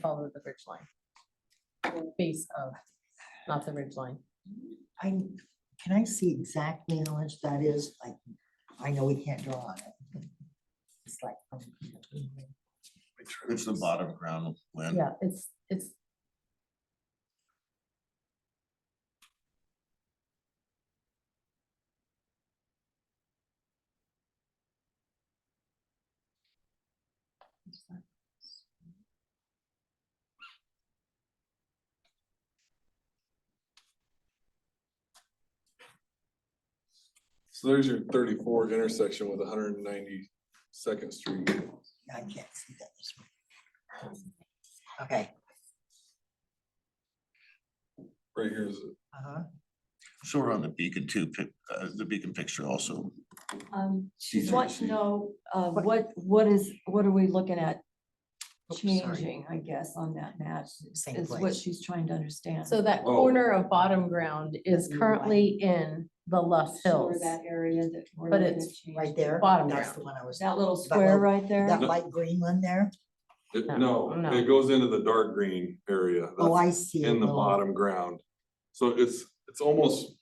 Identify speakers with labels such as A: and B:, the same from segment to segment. A: follow the ridge line. Or Base of, not the ridge line.
B: I, can I see exactly how much that is? Like, I know we can't draw on it. It's like. um,
C: It's the bottom ground, Lynn.
A: Yeah, it's, it's.
D: So there's your thirty-four intersection with hundred and ninety-second street.
B: I can't see that. this way. Okay.
D: Right here is,
B: Uh-huh.
C: So we're on the beacon too, pic- uh, the beacon picture also.
E: Um,
C: She's
E: she's want to
C: interested.
E: know, uh, what, what is, what are we looking at
B: Oops, sorry.
E: changing, I guess, on that map?
B: Same
E: Is what
B: place.
E: she's trying to understand.
A: So that
D: Oh.
A: corner of bottom ground is
E: That you
A: currently in the Luff
E: Sure,
A: Hills.
E: That area that we're
A: But
E: looking
A: it's
E: at changing.
B: Right there.
A: Bottom
B: That's
A: ground.
B: the one I was.
E: That little
B: that
E: square
B: little-
E: right there,
B: That light green one there?
D: it-
A: No,
D: no,
A: no.
D: it goes into the dark green area.
B: Oh,
D: that's
B: I see. it,
D: In the
B: little-
D: bottom ground. So it's, it's almost.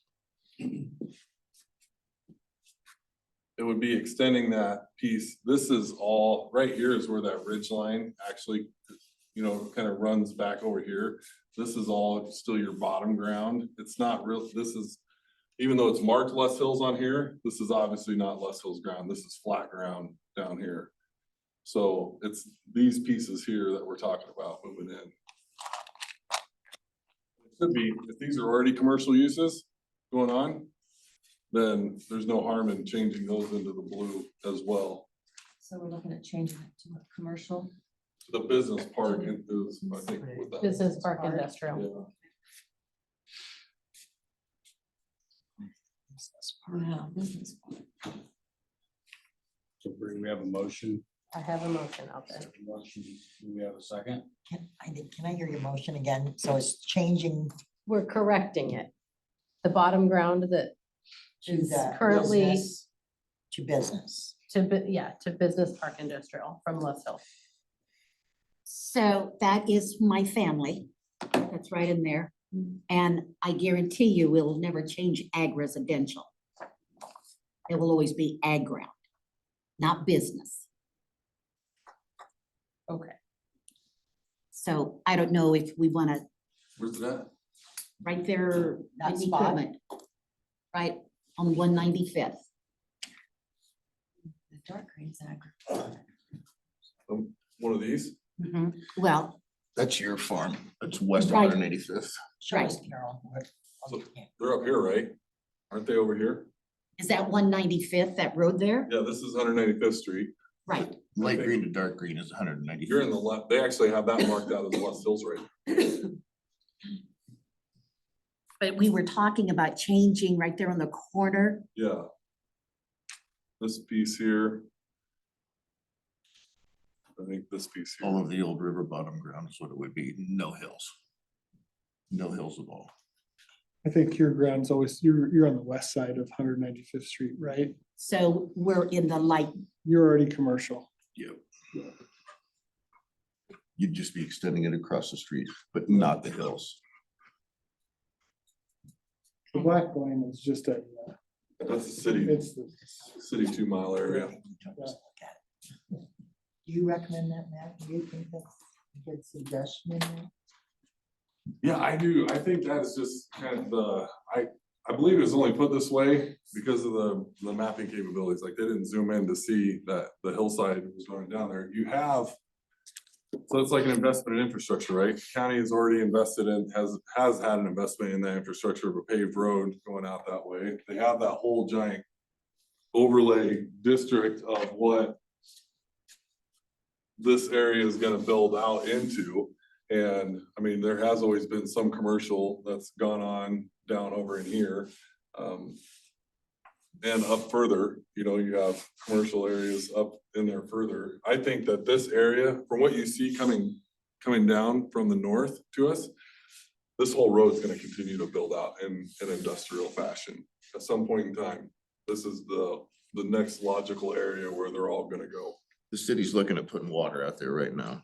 D: It would be extending that piece. This is all, right here is where that ridge line actually, you know, kind of runs back over here. This is all still your bottom ground. It's not real, this is, even though it's marked Les Hills on here, this is obviously not Les Hills ground. This is flat ground down here. So it's these pieces here that we're talking about moving in. Could be, if these are already commercial uses going on, then there's no harm in changing those into the blue as well.
E: so we're looking at changing it to a commercial.
D: The business park is, I think, with that.
A: Business Park
E: Park.
A: Industrial.
D: Yeah.
E: Wow, business. park.
F: So Bree, we have a motion.
A: I have a motion out there.
F: Motion, Do we have a second?
B: Can I, think- can I hear your motion again? So it's changing
A: We're correcting it. The bottom ground that
B: to
A: is
B: the.
A: currently
B: business- To business.
A: to, bu- yeah, to Business Park Industrial from Luff Hill.
G: So that is my family. That's right in there. And I guarantee you, we'll never change ag residential. It will always be ag ground, not business.
A: Okay.
G: So I don't know if we want to,
D: Where's that?
G: right there,
B: That
G: in
B: spot?
G: equipment. Right, on one ninety-fifth.
E: The dark green's agriculture.
D: One of these?
G: Well,
C: That's your farm. It's west of
G: Right.
C: 185th.
B: Show us,
G: Right.
B: Carol. what- oh, you can't.
D: They're up here, right? Aren't they over here?
G: is that one ninety-fifth, that road there?
D: Yeah, this is hundred ninety-fifth street.
G: Right,
C: Light green to dark green is 195th.
D: You're in the left, they actually have that marked out as West Hills right.
G: but we were talking about changing right there on the corner.
D: Yeah. This piece here. I think this piece here.
C: All of the old river bottom ground is what it would be, no hills. No hills at all.
H: I think your ground's always, you're, you're on the west side of Hundred Ninety-Fifth Street, right?
G: So we're in the light
H: You're already commercial.
C: Yep. You'd just be extending it across the street, but not the hills.
H: The black line is just a, uh,
D: That's the city,
H: it's the
D: city two mile area.
B: Do you recommend that, Matt? Do you think that's a good suggestion? in there?
D: Yeah, I do. I think that's just kind of the, I, I believe it was only put this way because of the, the mapping capabilities. Like they didn't zoom in to see that the hillside was going down there. You have. So it's like an investment in infrastructure, right? County has already invested in, has, has had an investment in that infrastructure of a paved road going out that way. They have that whole giant overlay district of what this area is gonna build out into. And I mean, there has always been some commercial that's gone on down over in here. um, And up further, you know, you have commercial areas up in there further. I think that this area, from what you see coming, coming down from the north to us. This whole road's gonna continue to build out in an industrial fashion at some point in time. This is the, the next logical area where they're all gonna go.
C: The city's looking at putting water out there right now.